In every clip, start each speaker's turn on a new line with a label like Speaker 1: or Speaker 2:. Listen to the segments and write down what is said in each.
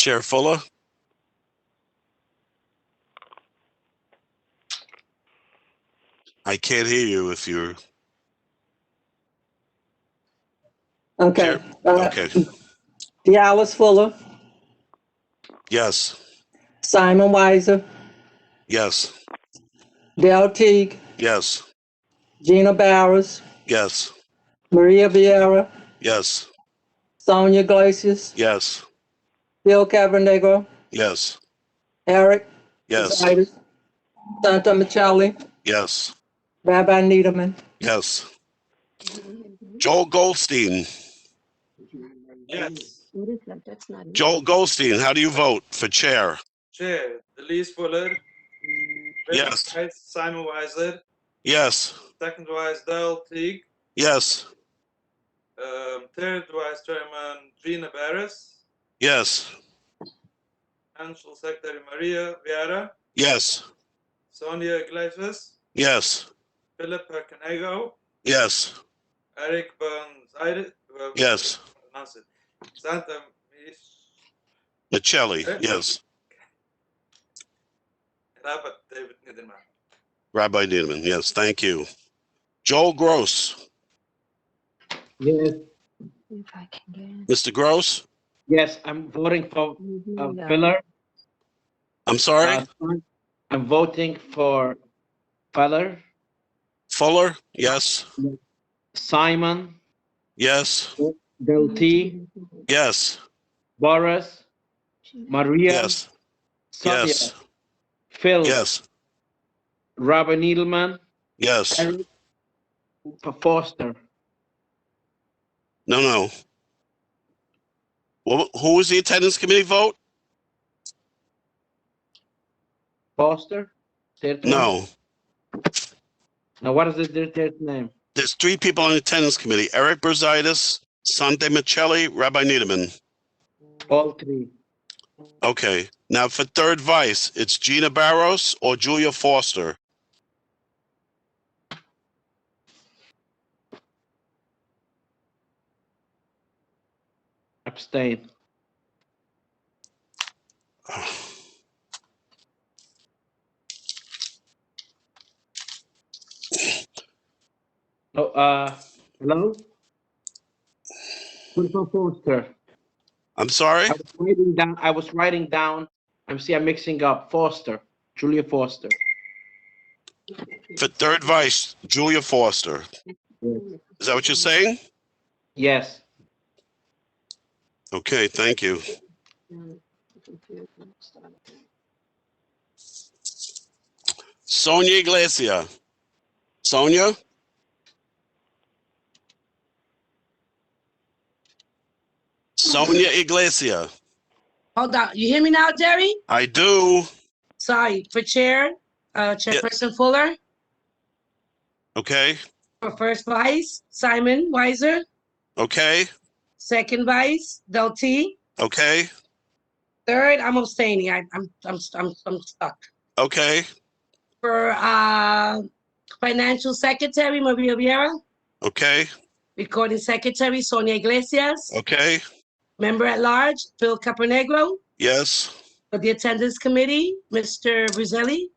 Speaker 1: Chair Fuller. I can't hear you if you're,
Speaker 2: Okay. Uh,
Speaker 1: okay,
Speaker 2: Dallas Fuller,
Speaker 1: yes,
Speaker 2: Simon Weiser,
Speaker 1: yes,
Speaker 2: Del Teague,
Speaker 1: yes,
Speaker 2: Gina Barris,
Speaker 1: yes,
Speaker 2: Maria Vieira,
Speaker 1: yes,
Speaker 2: Sonia Glacius,
Speaker 1: yes,
Speaker 2: Bill Cavernagro,
Speaker 1: yes,
Speaker 2: Eric
Speaker 1: yes,
Speaker 2: Zaitis, Santa Michelli,
Speaker 1: yes,
Speaker 2: Rabbi Needleman.
Speaker 1: yes. Joel Goldstein,
Speaker 3: Yes.
Speaker 4: What is that? That's not. it.
Speaker 1: Joel Goldstein, how do you vote for chair?
Speaker 3: Chair, Delise Fuller.
Speaker 1: Yes.
Speaker 3: Right, Simon Weiser,
Speaker 1: Yes,
Speaker 3: second vice Dale Teague,
Speaker 1: yes,
Speaker 3: um, third vice chairman Gina Barris,
Speaker 1: yes,
Speaker 3: financial secretary Maria Vieira,
Speaker 1: yes,
Speaker 3: Sonia Iglesias,
Speaker 1: yes,
Speaker 3: Philip Canego,
Speaker 1: yes,
Speaker 3: Eric Burns, I, well,
Speaker 1: yes.
Speaker 3: pronounce it, Santa Mich-
Speaker 1: Michelli, yes.
Speaker 3: Rabat David Niederman.
Speaker 1: Rabbi Needleman, yes, thank you. Joel Gross,
Speaker 5: Yes,
Speaker 4: If I can get it.
Speaker 1: Mr. Gross,
Speaker 5: yes, I'm voting for
Speaker 4: Maybe,
Speaker 5: uh,
Speaker 4: uh,
Speaker 5: Feller.
Speaker 1: I'm sorry,
Speaker 5: Uh, I'm voting for Feller,
Speaker 1: Fuller, yes,
Speaker 5: Simon,
Speaker 1: yes,
Speaker 5: Del
Speaker 4: Mm-hmm.
Speaker 5: T,
Speaker 1: yes,
Speaker 5: Boris, Maria,
Speaker 1: yes,
Speaker 5: Sonia,
Speaker 1: yes,
Speaker 5: Phil,
Speaker 1: yes,
Speaker 5: Robert Needleman,
Speaker 1: yes.
Speaker 5: Eric Foster.
Speaker 1: No, no. Wha- Who was the attendance committee vote?
Speaker 5: Foster? Third one?
Speaker 1: No,
Speaker 5: Now, what is the their third name?
Speaker 1: there's three people on the attendance committee, Eric Brusitis, Sante Michelli, Rabbi Needleman.
Speaker 5: All three.
Speaker 1: Okay, now for third vice, it's Gina Barros or Julia Foster.
Speaker 5: Abstain. Oh, uh, hello? Christopher Foster.
Speaker 1: I'm sorry?
Speaker 5: I was writing down, I was writing down, I'm see, I'm mixing up Foster, Julia Foster.
Speaker 1: For third vice, Julia Foster. Is that what you're saying?
Speaker 5: Yes,
Speaker 1: Okay, thank you.
Speaker 4: um, computer won't start again.
Speaker 1: Sonia Iglesia. Sonia? Sonia Iglesia.
Speaker 6: Hold on, you hear me now, Jerry?
Speaker 1: I do.
Speaker 6: Sorry, for Chair, uh, Chairperson Fuller,
Speaker 1: Okay,
Speaker 6: for First Vice, Simon Weiser,
Speaker 1: okay,
Speaker 6: Second Vice, Del T.
Speaker 1: okay,
Speaker 6: Third, I'm abstaining, I, I'm, I'm, I'm, I'm stuck.
Speaker 1: okay,
Speaker 6: For, uh, Financial Secretary Maria Vieira,
Speaker 1: okay,
Speaker 6: Recording Secretary Sonia Iglesias,
Speaker 1: okay.
Speaker 6: Member at Large, Phil Caponegro,
Speaker 1: Yes,
Speaker 6: for the Attendance Committee, Mr. Bruzelli,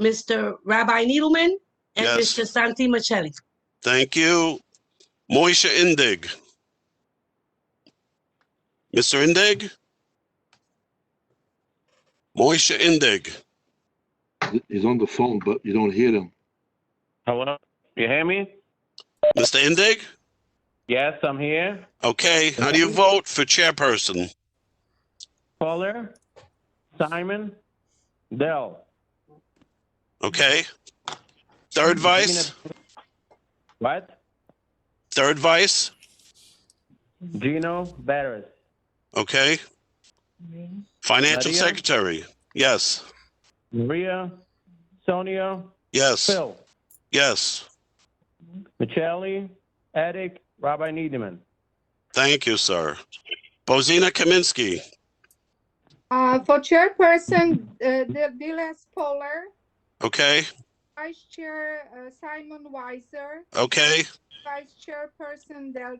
Speaker 6: Mr. Rabbi Needleman, and
Speaker 1: Yes.
Speaker 6: Mr. Santi Machelli.
Speaker 1: thank you. Moisha Indig. Mr. Indig? Moisha Indig.
Speaker 7: He's on the phone, but you don't hear him.
Speaker 8: Hello, you hear me?
Speaker 1: Mr. Indig?
Speaker 8: Yes, I'm here.
Speaker 1: Okay, how do you vote for chairperson?
Speaker 8: Fuller, Simon, Dell.
Speaker 1: Okay. Third vice,
Speaker 8: What?
Speaker 1: third vice,
Speaker 8: Gino Barris,
Speaker 1: okay. Financial
Speaker 8: Maria?
Speaker 1: secretary, yes,
Speaker 8: Maria, Sonia,
Speaker 1: yes,
Speaker 8: Phil,
Speaker 1: yes.
Speaker 8: Michele, Eric, Rabbi Needleman.
Speaker 1: Thank you, sir. Bozina Kaminsky,
Speaker 9: Uh, for chairperson, uh, the Dylan's Poller,
Speaker 1: okay,
Speaker 9: vice chair, uh, Simon Weiser,
Speaker 1: okay.
Speaker 9: vice chairperson, Del